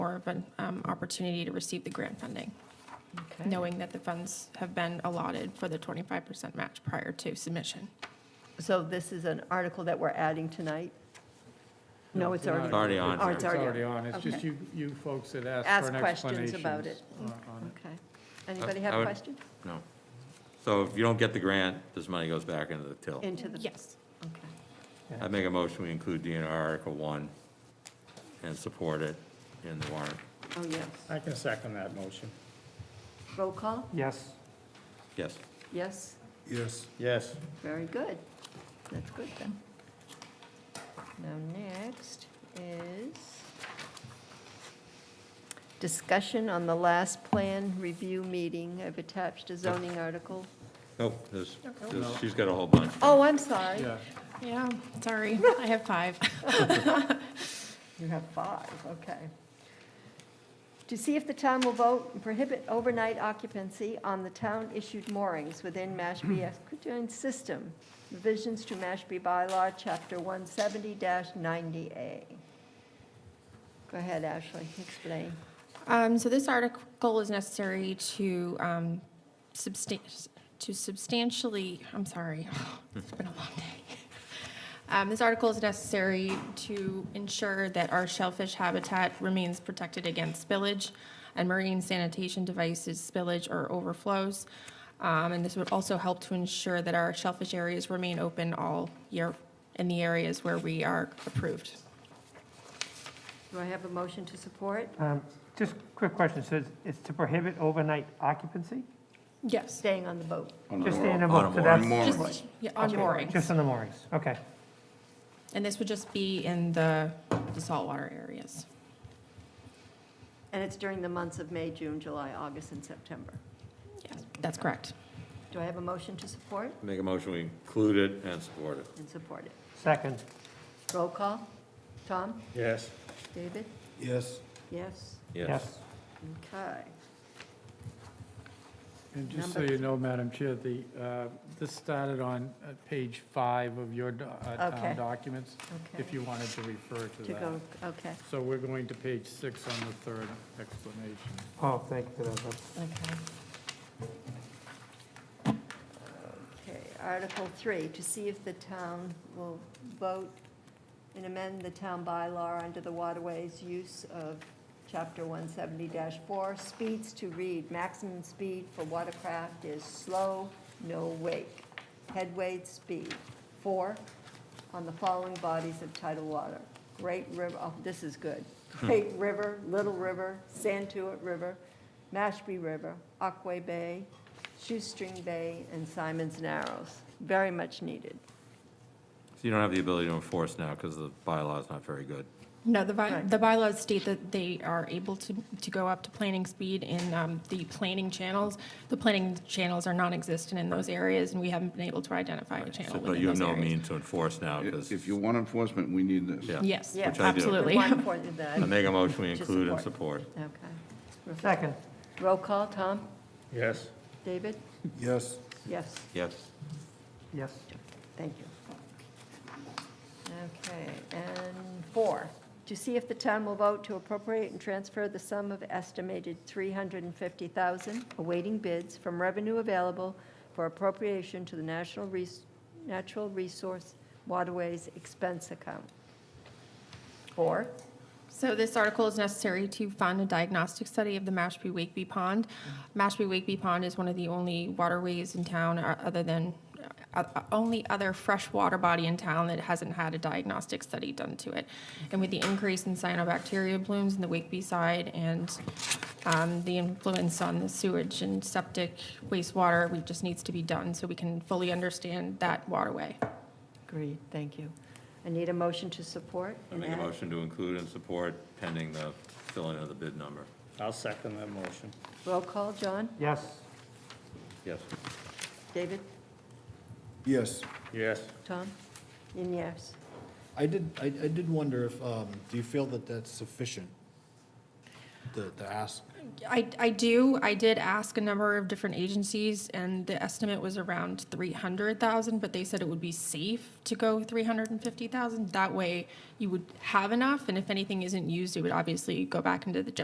of an um, opportunity to receive the grant funding, Okay. knowing that the funds have been allotted for the 25% match prior to submission. So this is an article that we're adding tonight? No, it's already. It's already on Oh, there. it's already on. on, it's just Okay. you, you folks that asked Ask for an questions explanation. about it. uh, Okay. Anybody have Uh, a I would- question? No. So if you don't get the grant, this money goes back into the till. Into the, Yes. okay. I make a motion, we include DNR Article 1 and support it in the warrant. Oh, yes. I can second that motion. Roll call? Yes. Yes. Yes? Yes. Yes. Very good. That's good then. Now, next is discussion on the last plan review meeting. I've attached a zoning article. Nope, there's, there's- she's got a whole bunch. Oh, I'm sorry. Yeah. Yeah, sorry, I have five. You have five, okay. To see if the town will vote and prohibit overnight occupancy on the town-issued moorings within Mashpee Equidistance System, revisions to Mashpee bylaw, chapter 170-90A. Go ahead, Ashley, explain. Um, So this article is necessary to um, substan- to substantially, I'm sorry, it's been a long day. Um, This article is necessary to ensure that our shellfish habitat remains protected against spillage and marine sanitation devices spillage or overflows. Um, And this would also help to ensure that our shellfish areas remain open all year in the areas where we are approved. Do I have a motion to support? Um, Just quick question, so it's- it's to prohibit overnight occupancy? Yes. Staying on the boat. Just the in on a a boat, so mooring. that's. Just yeah, on okay, moorings. Just on the moorings, okay. And this would just be in the the saltwater areas. And it's during the months of May, June, July, August, and September. Yes, that's correct. Do I have a motion to support Make a motion, we include it and support it. and support it? Second, Roll call? Tom? Yes. David? Yes. Yes? Yes. yes. Okay. And just so you know, Madam Chair, the, uh, this started on uh, page five of your do- uh, Okay. town documents, if Okay. you wanted to refer to To that. go, okay. So we're going to page six on the third explanation. Oh, thank you for that. that's- Okay. Okay, Article 3, to see if the town will vote and amend the town bylaw under the waterways use of Chapter 170-4, speeds to read, maximum speed for watercraft is slow, no wake, head weight speed, 4, on the following bodies of tidal water. Great River, oh, this is good. Hmm. Great River, Little River, Santuit River, Mashpee River, Aquay Bay, Shoestring Bay, and Simon's Narrows. Very much needed. So you don't have the ability to enforce now because the bylaw is not very good. No, the by, Right. the bylaws state that they are able to, to go up to planning speed in um, the planning channels. The planning channels are non-existent in those areas, and we haven't been able to identify a So- channel But within you have those no areas. means to enforce now because, If you want enforcement, we need this. Oh, yeah. Yes, Yeah. Which I do. absolutely. The one for the- I make a motion, we To include and support. Okay. Second, Roll call, Tom? Yes. David? Yes. Yes. Yes. yes. Thank you. Okay, and four, to see if the town will vote to appropriate and transfer the sum of estimated 350000 awaiting bids from revenue available for appropriation to the National Res- Natural Resource Waterways Expense Account. Four, So this article is necessary to fund a diagnostic study of the Mashpee Wakeby Pond. Mashpee Wakeby Pond is one of the only waterways in town, uh, other than, uh, uh, only other freshwater body in town that hasn't had a diagnostic study done to it. And with the increase in cyanobacteria blooms in the Wakeby side and um, the influence on the sewage and septic wastewater, we just needs to be done so we can fully understand that waterway. agreed, thank you. I need a motion to support. I and make a add- motion to include and support pending the filling of the bid number. I'll second that motion. Roll call, John? Yes, Yes. David? Yes. Yes. Tom? And yes. I did, I, I did wonder if, um, do you feel that that's sufficient? The, the ask? I, I do. I did ask a number of different agencies, and the estimate was around three hundred thousand, but they said it would be safe to go three hundred and fifty thousand. That way, you would have enough, and if anything isn't used, it would obviously go back into the general